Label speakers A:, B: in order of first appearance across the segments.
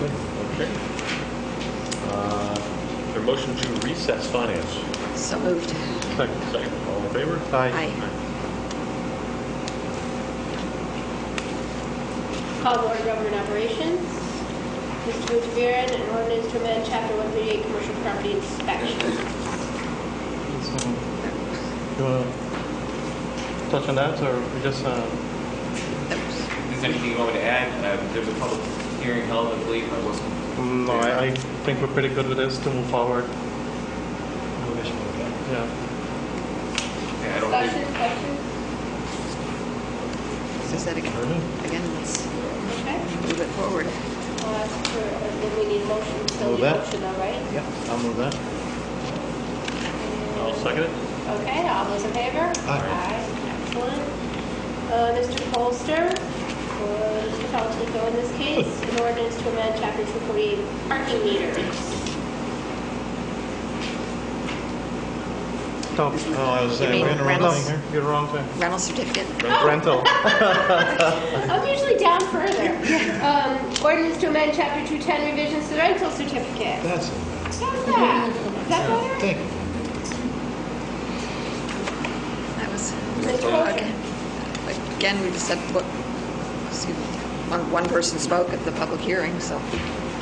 A: Okay. Uh, Is there a motion to recess finance?
B: So moved.
A: Second, all in favor?
B: Aye.
C: Call to order government operations. Mr. Bujarin, an ordinance to amend chapter 138 commercial property inspection.
D: You want to touch on that, or we just, uh,
E: Is there anything you want me to add? Um, There was a public hearing held, I believe, I wasn't.
D: no, I, I think we're pretty good with this to move forward, yeah.
E: Yeah, I don't think,
C: Discussion, questions?
B: Is that again? Again, let's
C: Okay.
B: move it forward.
C: I'll ask for, uh, then we need a motion, still
F: Move
C: need a
F: that.
C: motion though, right?
F: Yep, I'll move that.
A: I'll second it.
C: Okay, all those in favor? Aye. Excellent. Uh, Mr. Polster, or Mr. Palatino in this case, an ordinance to amend chapter 248 parking meters.
D: Top,
F: Oh, I was,
B: You
F: I
B: mean
F: ran around
B: Reynolds?
F: here.
D: you're wrong thing.
B: Rental certificate?
C: Oh,
D: Rental.
C: I'm usually down further. Um, Ordinance to amend chapter 210 revisions to the rental certificate.
F: That's it.
C: How's that? Is that better?
F: Thank you.
B: That was,
C: Mr.
B: okay.
C: Polster?
B: Again, we just said, what, excuse me, one, one person spoke at the public hearing, so.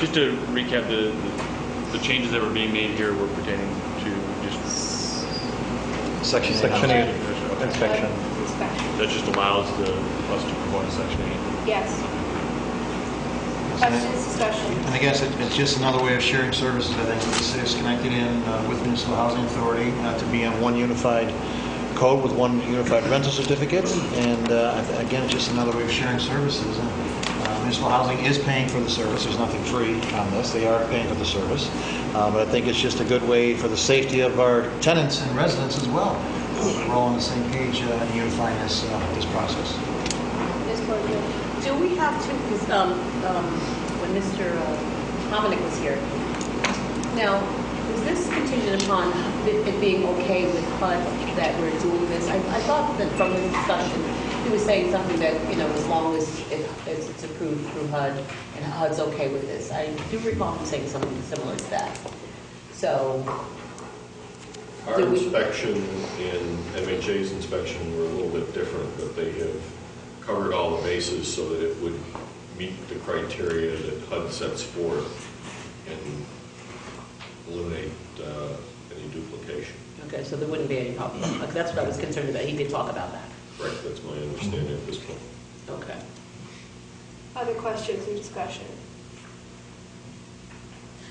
A: Just to recap, the, the changes that were being made here were pertaining to just...
F: Section
D: Section eight.
A: Okay.
D: Inspection.
C: Inspection,
A: That just allows the, us to perform section eight.
C: yes.
F: And
C: Questions, discussion?
F: I guess it- it's just another way of sharing services, I think, with the city of Schenectady and uh, with Municipal Housing Authority, not to be on one unified code with one unified rental certificate. And uh, I th- again, it's just another way of sharing services. And, uh, Municipal Housing is paying for the service, there's nothing free on this, they are paying for the service. Uh, But I think it's just a good way for the safety of our tenants and residents as well. Uh, We're all on the same page uh, and unifying this, uh, this process.
C: Ms. Corrigan?
G: Do we have to, because when Mr. Hominick was here, now, is this contingent upon it it being okay with HUD that we're doing this? I I thought that from his discussion, he was saying something that, you know, as long as it- as it's approved through HUD and HUD's okay with this. I do recall him saying something similar to that. So,
H: Our
G: Do we-
H: inspection and MHA's inspection were a little bit different, but they have covered all the bases so that it would meet the criteria that HUD sets forth and eliminate uh, any duplication.
G: okay, so there wouldn't be any problem. Like, That's what I was concerned about. He did talk about that.
H: Correct, that's my understanding at this point.
G: Okay.
C: Other questions or discussion?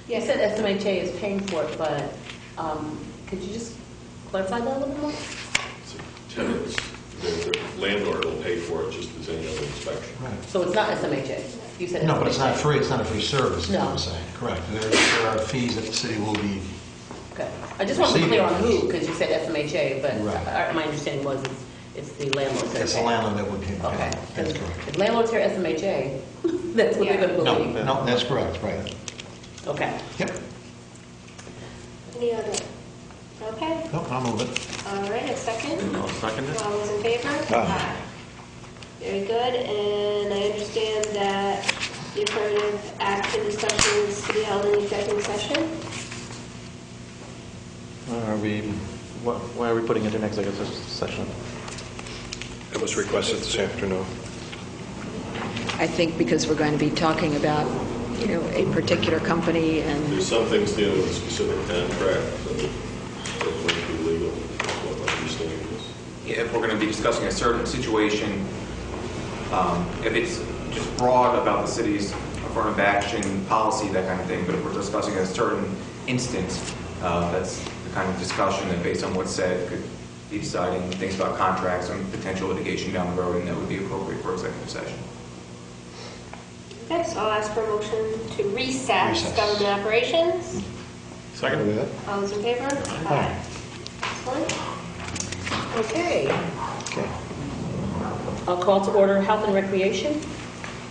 G: You said SMHA is paying for it, but um, could you just clarify that a little bit more?
H: So Tenants, the the landlord will pay for it just as any other inspection.
G: So it's not SMHA? You said
F: No, but it's not
G: SMHA.
F: free, it's not a free service, is what
G: No.
F: I'm saying, correct. There there are fees that the city will be,
G: Okay. I just want to be clear on who, because you said SMHA, but
F: Right.
G: our- my understanding was it's- it's the landlords that are
F: it's the
G: paying.
F: landlord that would pay.
G: Okay.
F: That's correct.
G: If landlords hear SMHA, that's what they're going to
F: No,
G: believe.
F: no, that's correct, right.
G: Okay.
F: Yep,
C: Any other? Okay,
F: no, I'll move it.
C: all right, a second.
A: I'll second it.
C: All those in favor? Aye. Very good, and I understand that the affirmative action discussion is to be held in executive session?
D: Are we, why- why are we putting it in executive session?
I: It was requested this afternoon.
B: I think because we're going to be talking about, you know, a particular company and,
H: There's some things dealing with a specific contract, so that might be legal, that's what my understanding is.
E: yeah, if we're going to be discussing a certain situation, um, if it's just broad about the city's affirmative action, policy, that kind of thing, but if we're discussing a certain instance, uh, that's the kind of discussion that based on what's said could be deciding things about contracts and potential litigation down the road, and that would be appropriate for executive session.
C: Okay, so I'll ask for a motion to recess
F: Recess.
C: government operations.
A: Second?
F: Move it.
C: All those in favor? Aye. Excellent.
G: Okay.
F: Okay.
G: I'll call to order Health and Recreation.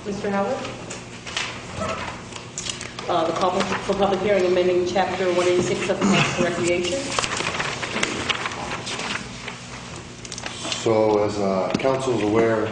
G: Mr. Howard? Uh, The call for public hearing amending Chapter 186 of the Health and Recreation.
J: So as uh, council is aware,